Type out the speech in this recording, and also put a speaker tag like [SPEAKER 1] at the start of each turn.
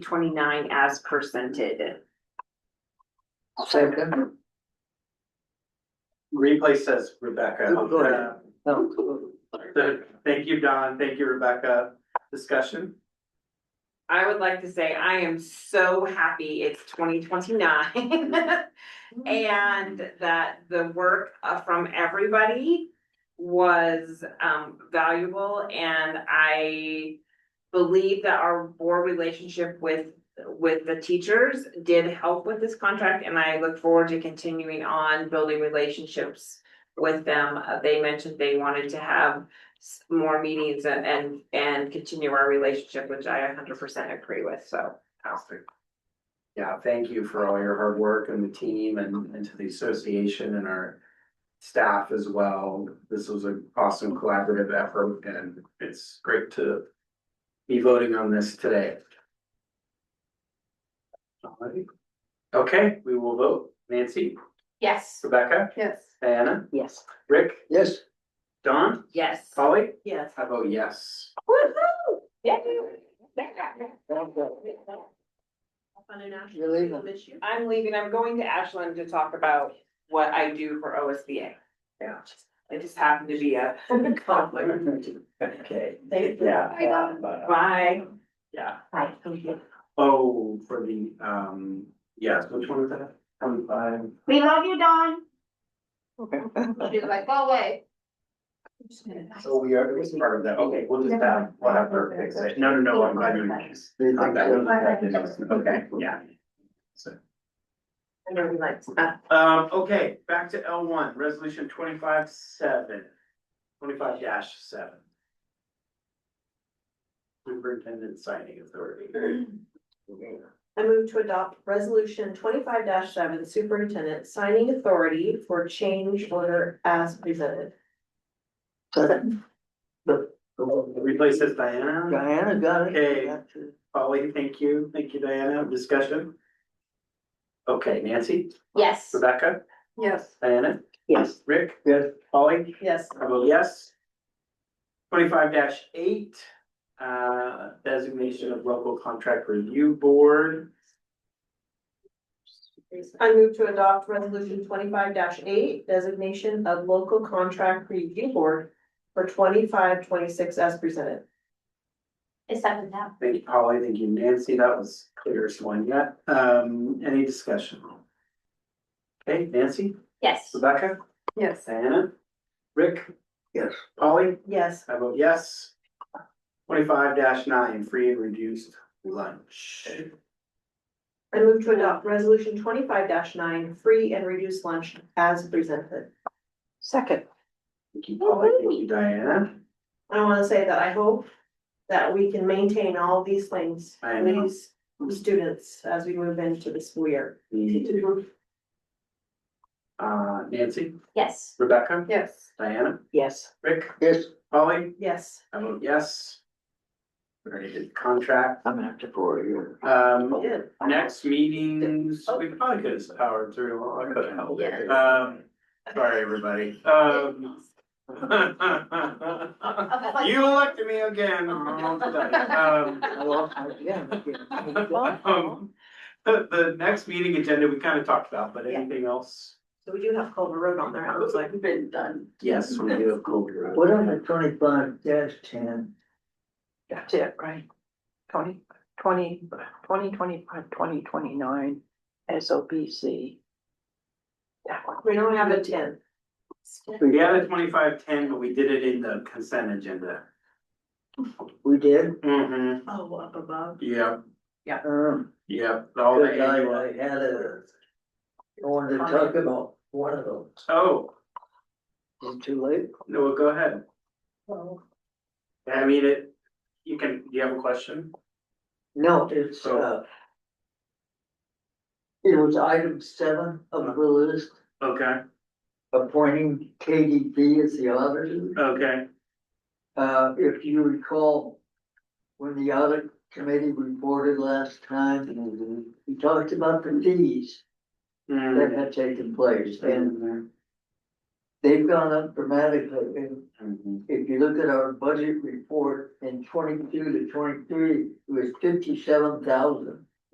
[SPEAKER 1] twenty-nine as presented.
[SPEAKER 2] Second.
[SPEAKER 3] Replay says Rebecca. on there. So, Thank you, Don. Thank you, Rebecca. Discussion?
[SPEAKER 1] I would like to say I am so happy it's twenty twenty-nine. And that the work uh, from everybody was um valuable and I believe that our board relationship with with the teachers did help with this contract and I look forward to continuing on building relationships with them. Uh, They mentioned they wanted to have s- more meetings and and and continue our relationship, which I hundred percent agree with, so.
[SPEAKER 3] Fantastic. Yeah, thank you for all your hard work and the team and, and to the association and our staff as well. This was an awesome collaborative effort and it's great to be voting on this today. Alrighty. Okay, we will vote. Nancy,
[SPEAKER 1] Yes.
[SPEAKER 3] Rebecca,
[SPEAKER 2] Yes.
[SPEAKER 3] Diana,
[SPEAKER 1] Yes.
[SPEAKER 3] Rick,
[SPEAKER 2] Yes.
[SPEAKER 3] Don,
[SPEAKER 1] Yes.
[SPEAKER 3] Polly,
[SPEAKER 1] Yes.
[SPEAKER 3] I vote yes.
[SPEAKER 1] Woohoo!
[SPEAKER 2] You're leaving.
[SPEAKER 1] I'm leaving, I'm going to Ashland to talk about what I do for OSBA.
[SPEAKER 3] Yeah.
[SPEAKER 1] It just happened to be a conflict.
[SPEAKER 3] Okay.
[SPEAKER 2] Bye, Don.
[SPEAKER 3] Yeah. uh,
[SPEAKER 1] Bye.
[SPEAKER 3] Yeah. Oh, for the, um, yes, which one is that? Twenty-five.
[SPEAKER 4] We love you, Dawn.
[SPEAKER 2] She's like, go away.
[SPEAKER 3] So we are, it was part of that, okay, we'll just have, we'll have her fix it. No, no, no, I'm glad you noticed. Not that one. Okay, yeah. So,
[SPEAKER 1] I know we like stuff.
[SPEAKER 3] Um, okay, back to L one, resolution twenty-five seven, twenty-five dash seven. Superintendent signing authority.
[SPEAKER 5] I move to adopt resolution twenty-five seven superintendent signing authority for change order as presented.
[SPEAKER 3] Replaces Diana.
[SPEAKER 2] Diana got it.
[SPEAKER 3] Okay. Polly, thank you. Thank you, Diana. Discussion? Okay, Nancy,
[SPEAKER 4] Yes.
[SPEAKER 3] Rebecca,
[SPEAKER 5] Yes.
[SPEAKER 3] Diana,
[SPEAKER 2] Yes.
[SPEAKER 3] Rick,
[SPEAKER 2] Yes.
[SPEAKER 3] Polly,
[SPEAKER 5] Yes.
[SPEAKER 3] I vote yes. Twenty-five eight, uh, designation of local contract review board.
[SPEAKER 5] I move to adopt resolution twenty-five eight designation of local contract review board for twenty-five, twenty-six as presented.
[SPEAKER 4] It's seven now.
[SPEAKER 3] Thank you, Polly. Thank you, Nancy. That was clearest one yet. Um, any discussion? Okay, Nancy,
[SPEAKER 4] Yes.
[SPEAKER 3] Rebecca,
[SPEAKER 5] Yes.
[SPEAKER 3] Diana, Rick?
[SPEAKER 2] Yes.
[SPEAKER 3] Polly?
[SPEAKER 5] Yes.
[SPEAKER 3] I vote yes. Twenty-five nine, free and reduced lunch.
[SPEAKER 5] I move to adopt resolution twenty-five nine, free and reduced lunch as presented.
[SPEAKER 2] Second.
[SPEAKER 3] Thank you, Polly. Thank you, Diana.
[SPEAKER 5] I wanna say that I hope that we can maintain all these things,
[SPEAKER 3] I
[SPEAKER 5] for
[SPEAKER 3] know.
[SPEAKER 5] these students as we move into the school year.
[SPEAKER 3] Me too. Uh, Nancy,
[SPEAKER 4] Yes.
[SPEAKER 3] Rebecca,
[SPEAKER 5] Yes.
[SPEAKER 3] Diana,
[SPEAKER 2] Yes.
[SPEAKER 3] Rick,
[SPEAKER 2] Yes.
[SPEAKER 3] Polly,
[SPEAKER 5] Yes.
[SPEAKER 3] I vote yes. We Already did contract.
[SPEAKER 2] I'm after four years.
[SPEAKER 3] Um, next meetings, we probably could have powered through. I could have held it. Um, sorry, everybody. Um. You elected me again. Um, Um, The, the next meeting agenda, we kind of talked about, but anything else?
[SPEAKER 5] So we do have Culver Road on there. I was like,
[SPEAKER 1] been done.
[SPEAKER 3] Yes, we do have Colby Road.
[SPEAKER 2] What on the twenty-five dash ten?
[SPEAKER 6] That's it, right? Twenty, twenty, twenty, twenty-five, twenty, twenty-nine, S O B C. That one.
[SPEAKER 5] we don't have a ten.
[SPEAKER 3] We had a twenty-five ten, but we did it in the consent agenda.
[SPEAKER 2] We did,
[SPEAKER 3] Mm-hmm,
[SPEAKER 5] Oh, up above.
[SPEAKER 3] yep,
[SPEAKER 2] um,
[SPEAKER 3] yep, all the
[SPEAKER 2] good night,
[SPEAKER 3] annual,
[SPEAKER 2] I had a. I wanted to talk about one of those,
[SPEAKER 3] oh,
[SPEAKER 2] is it too late?
[SPEAKER 3] no, well, go ahead. I mean, it, you can, do you have a question?
[SPEAKER 2] No, it's,
[SPEAKER 3] Oh.
[SPEAKER 2] uh. It was item seven of the list,
[SPEAKER 3] Okay,
[SPEAKER 2] appointing KDP as the auditor.
[SPEAKER 3] okay,
[SPEAKER 2] Uh, if you recall, when the audit committee reported last time, we talked about the fees
[SPEAKER 3] mm,
[SPEAKER 2] that had taken place and They've gone up dramatically, and
[SPEAKER 3] Mhm.
[SPEAKER 2] if you look at our budget report in twenty-two to twenty-three, it was fifty-seven thousand.